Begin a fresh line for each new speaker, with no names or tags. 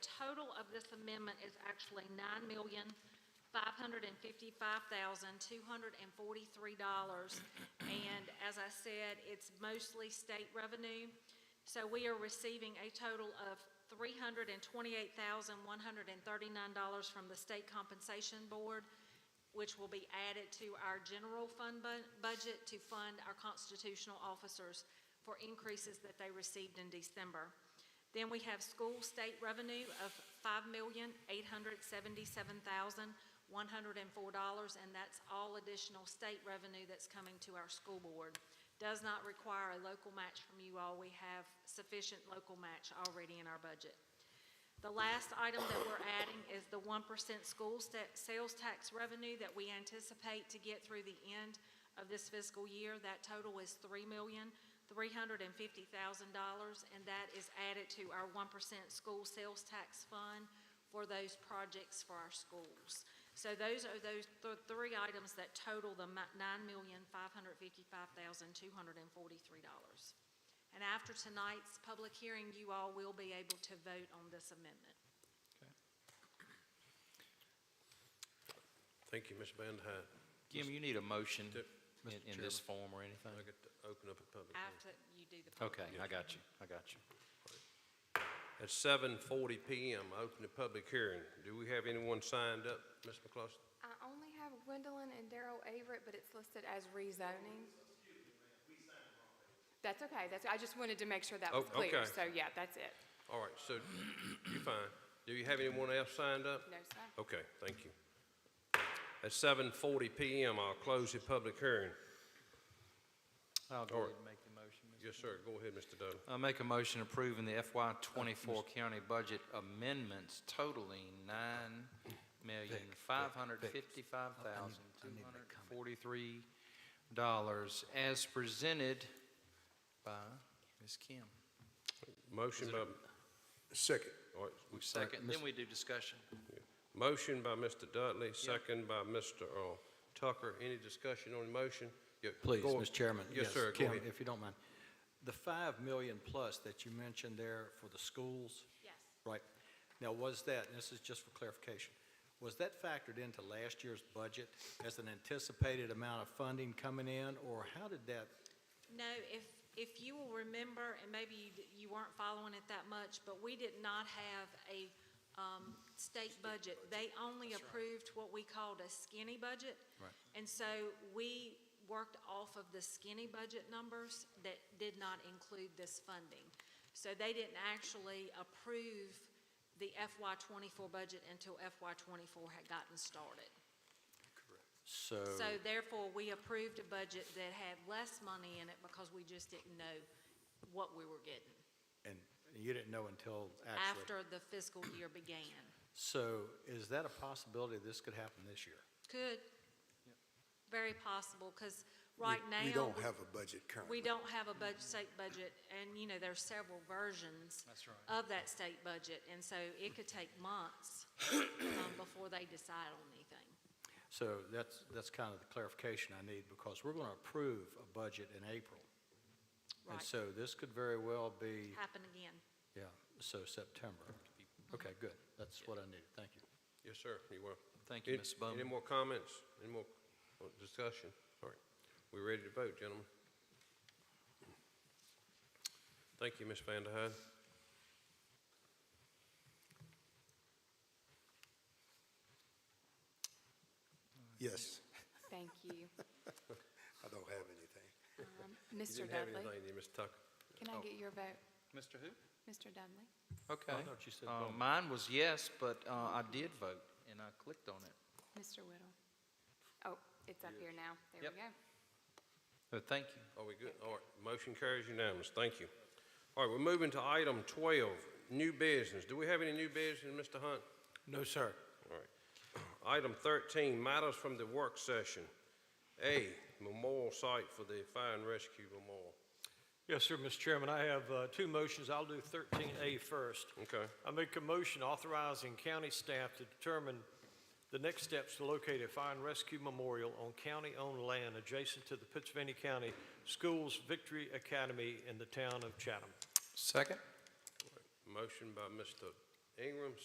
of this amendment is actually nine million, five hundred and fifty-five thousand, two hundred and forty-three dollars. And as I said, it's mostly state revenue. So we are receiving a total of three hundred and twenty-eight thousand, one hundred and thirty-nine dollars from the State Compensation Board, which will be added to our general fund bu- budget to fund our constitutional officers for increases that they received in December. Then we have school state revenue of five million, eight hundred seventy-seven thousand, one hundred and four dollars, and that's all additional state revenue that's coming to our school board. Does not require a local match from you all. We have sufficient local match already in our budget. The last item that we're adding is the one percent school sta- sales tax revenue that we anticipate to get through the end of this fiscal year. That total is three million, three hundred and fifty thousand dollars, and that is added to our one percent school sales tax fund for those projects for our schools. So those are those th- three items that total the nine million, five hundred fifty-five thousand, two hundred and forty-three dollars. And after tonight's public hearing, you all will be able to vote on this amendment.
Thank you, Ms. Van Hyne.
Jim, you need a motion
Mr.
in, in
Chairman,
this form or anything?
I get to open up a public hearing.
After you do the public
Okay,
hearing.
I got you, I got you.
At 7:40 PM, I open the public hearing. Do we have anyone signed up, Ms. McCloskey?
I only have Gwendolyn and Daryl Averett, but it's listed as rezoning. That's okay, that's, I just wanted to make sure that
Oh,
was clear.
okay.
So, yeah, that's it.
All right, so you fine. Do you have anyone else signed up?
No, sir.
Okay, thank you. At 7:40 PM, I'll close the public hearing.
I'll
go All right. ahead
and make the motion.
Yes, sir, go ahead, Mr. Dudley.
I make a motion approving the FY twenty-four county budget amendments totaling nine million, five hundred fifty-five thousand, two hundred forty-three dollars as presented by Ms. Kim.
Motion by,
Second.
all right, we-
Second,
Ms.
then we do discussion.
motion by Mr. Dudley, second by Mr. Earl Tucker. Any discussion on the motion? Yeah,
Please,
go-
Mr. Chairman.
Yes, sir, go
Kim,
ahead.
if you don't mind. The 5 million plus that you mentioned there for the schools,
Yes.
right? Now, was that, and this is just for clarification, was that factored into last year's budget as an anticipated amount of funding coming in, or how did that,
No, if, if you will remember, and maybe you d- you weren't following it that much, but we did not have a um, state budget. They only approved what we called a skinny budget.
Right.
And so we worked off of the skinny budget numbers that did not include this funding. So they didn't actually approve the FY twenty-four budget until FY twenty-four had gotten started.
so?
So therefore, we approved a budget that had less money in it because we just didn't know what we were getting
And you didn't know until actually?
after the fiscal year began.
So is that a possibility this could happen this year?
Could, very possible, because
We-
right now.
We don't have a budget currently.
We don't have a budget, state budget, and, you know, there's several versions
That's right.
of that state budget, and so it could take months um, before they decide on anything.
So that's, that's kind of the clarification I need, because we're going to approve a budget in April. And
Right.
so this could very well be,
Happen again.
yeah, so September. Okay, good. That's what I needed. Thank you.
Yes, sir, you will.
Thank you,
Any-
Ms. Bowman.
Any more comments? Any more uh, discussion? All right. We're ready to vote, gentlemen. Thank you, Ms. Van der Heide.
Yes,
Thank you.
I don't have anything.
Um,
You
Mr.
didn't have oh. anything,
Dudley,
did you, Ms. Tucker?
can I get your vote?
Mr. Who?
Mr. Dudley?
Okay.
I thought you said
Uh,
Bowman.
Mine was yes, but uh, I did vote, and I clicked on it.
Mr. Whittle? Oh, it's up here now. There
Yep.
we go.
So thank you.
Are we good? All right, motion carries unanimous. Thank you. All right, we're moving to item 12, new business. Do we have any new business, Mr. Hunt?
No, sir.
All right. Item 13, matters from the work session. A, memorial site for the fire and rescue memorial.
Yes, sir, Mr. Chairman, I have uh, two motions. I'll do 13A first.
Okay.
I make a motion authorizing county staff to determine the next steps to locate a fire and rescue memorial on county-owned land adjacent to the Pennsylvania County Schools Victory Academy in the town of Chatham.
Second?
Motion by Mr. Ingram,